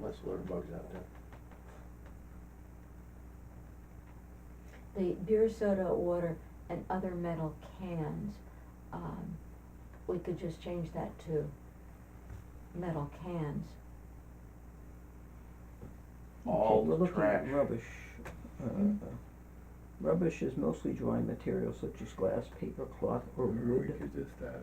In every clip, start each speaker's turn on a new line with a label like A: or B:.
A: Must have learned bugs out there.
B: the beer, soda, water, and other metal cans, um, we could just change that to metal cans.
C: Okay,
D: All
C: we're
D: the
C: looking at
D: trash.
C: Rubbish. Uh,
B: Mhm.
C: Rubbish is mostly dry materials such as glass, paper, cloth, or
E: Or we
C: wood.
E: could just have,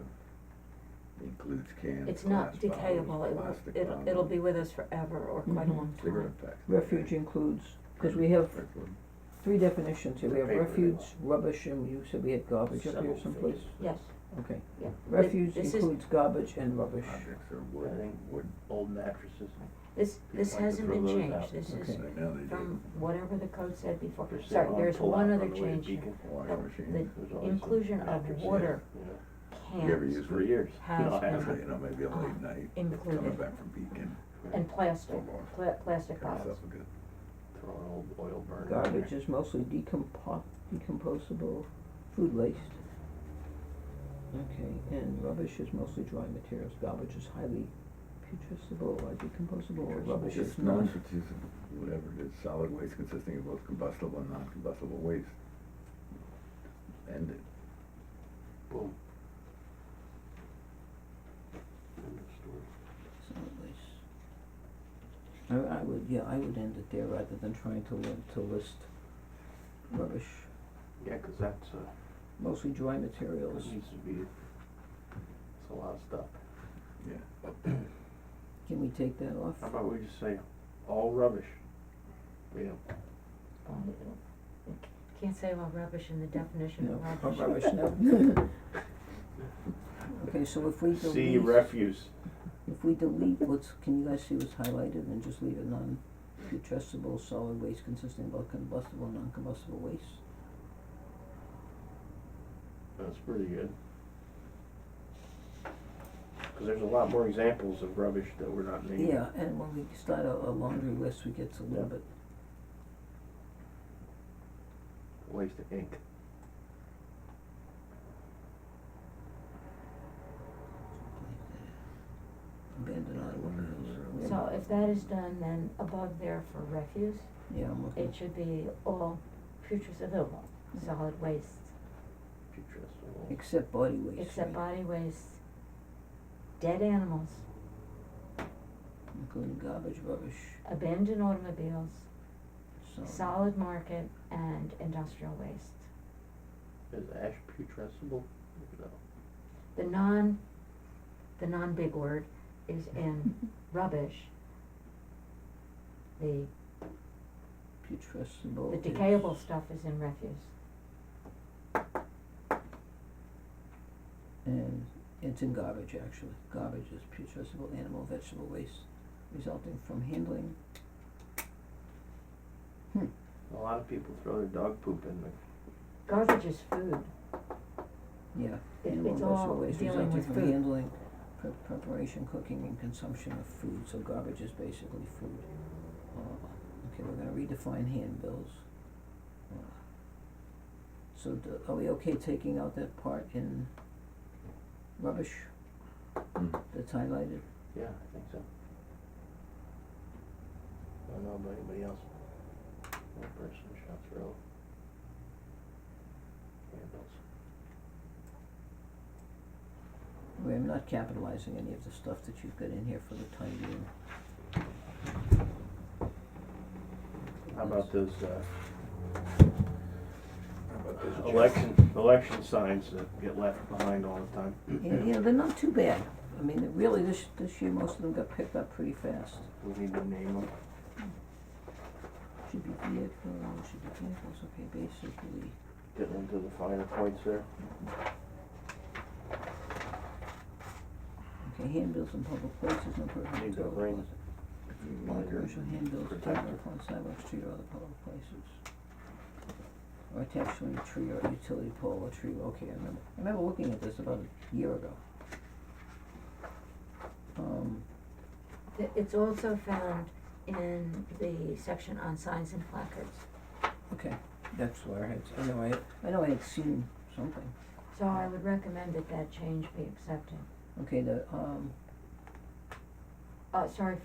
E: includes cans,
B: It's not
E: glass
B: decayable,
E: bottles,
B: it will,
E: plastic
B: it'll, it'll be
E: bottles,
B: with us forever or quite a
C: Mhm.
B: long time.
E: Cigarette packs.
C: Refuge includes, because we have
E: Refuge.
C: three definitions here. We have
A: Paper they
C: refuge,
A: want.
C: rubbish, and you said we had garbage up here
A: Several
C: someplace.
A: things.
B: Yes,
C: Okay.
B: yeah. But
C: Refuge
B: this is-
C: includes garbage and rubbish.
E: Objects or
A: I
E: wood,
A: think wood, old mattresses,
B: This, this
A: People like to
B: hasn't
A: throw
B: been
A: those
B: changed,
A: out.
B: this
C: Okay.
B: is
E: I know they
B: from
E: do,
B: whatever the code said before.
A: for sale
B: Sorry,
A: on
B: there's
A: pull-out
B: one
A: on
B: other
A: the way to
B: change here.
A: Beacon.
B: The-
E: washing
B: the
E: machines.
A: There's always some
B: inclusion of
A: mattresses,
B: water.
A: you know,
E: Never
B: Cans
E: use
A: For years.
B: Has
A: No, I
B: been.
E: Actually,
A: haven't.
E: you know, maybe a late
B: Um,
E: night, coming
B: included.
E: back from Beacon,
B: and plastic,
E: Hold on.
B: pla- plastic
E: cut
B: bottles.
E: yourself a good
A: Throw an old oil burner. in there.
C: Garbage is mostly decompo- decomposable food waste. Okay, and rubbish is mostly dry materials. Garbage is highly putrescible or decomposable, or rubbish is
E: Just
C: non.
E: non-strategic, whatever it is, solid waste consisting of both combustible and non-combustible waste. End it.
A: Boom. End of story.
C: Solid waste. I, I would, yeah, I would end it there rather than trying to li- to list rubbish,
A: Yeah, 'cause that's, uh,
C: mostly dry
A: that
C: materials.
A: needs to be, it's a lot of stuff.
E: Yeah.
C: Can we take that off?
A: How about we just say, all rubbish? You know,
B: Um, it'll- it c- Can't say all rubbish in the definition
C: No,
B: of
C: oh,
B: rubbish.
C: rubbish, no. Okay, so if we delete.
A: see refuse.
C: If we delete what's, can you guys see what's highlighted and just leave it non-putrescible solid waste consisting of both combustible and non-combustible waste?
A: That's pretty good. Cause there's a lot more examples of rubbish that we're not naming.
C: Yeah, and when we start a, a laundry list, we get a little
A: Yeah.
C: bit,
A: Waste of ink.
C: abandoned items.
B: So if that is done, then above there for refuse,
C: Yeah, I'm looking,
B: it should be all putrescible, solid waste,
A: Putrescible.
C: except body waste,
B: except
C: right?
B: body waste, dead animals,
C: Including garbage, rubbish,
B: abandoned automobiles,
C: solid.
B: solid market, and industrial waste.
A: Is ash putrescible? No.
B: The non, the non-big word is in rubbish. The,
C: Putrescible
B: the
C: is-
B: decayable stuff is in refuse.
C: And it's in garbage, actually. Garbage is putrescible animal vegetable waste resulting from handling. Hmm,
A: A lot of people throw their dog poop in the,
B: Garbage is food.
C: yeah,
B: It-
C: animal
B: it's
C: vegetable
B: all
C: waste
B: dealing
C: resulting
B: with
C: from
B: food.
C: handling, pre- preparation, cooking, and consumption of food, so garbage is basically food. Uh, Okay, we're gonna redefine handbills. Uh, So do, are we okay taking out that part in rubbish
A: Hmm.
E: Mm.
C: that's highlighted?
A: yeah, I think so. I don't know about anybody else. One person shot through. Handles.
C: I mean, I'm not capitalizing any of the stuff that you've got in here for the time being.
A: How about those, uh,
E: How about this, Jeff?
A: election, election signs that get left behind all the time?
C: Yeah, you know, they're not too bad. I mean, they're really, this, this year, most of them got picked up pretty fast.
A: We need to name them.
C: Should be vehicles, should be vehicles, okay, basically,
A: Getting into the finer points there.
C: okay, handbills in public places, no person.
A: Need to bring marker.
C: Commercial handbills taken
A: Protector.
C: upon sidewalks, street, or other public places. Or attached to any tree or utility pole or tree, okay, I remember, I remember looking at this about a year ago. Um,
B: Th- It's also found in the section on signs and placards.
C: Okay, that's where I had, I know I, had- I know I had seen something.
B: So I would recommend that that change be accepted.
C: Okay, the, um,
B: Uh, sorry,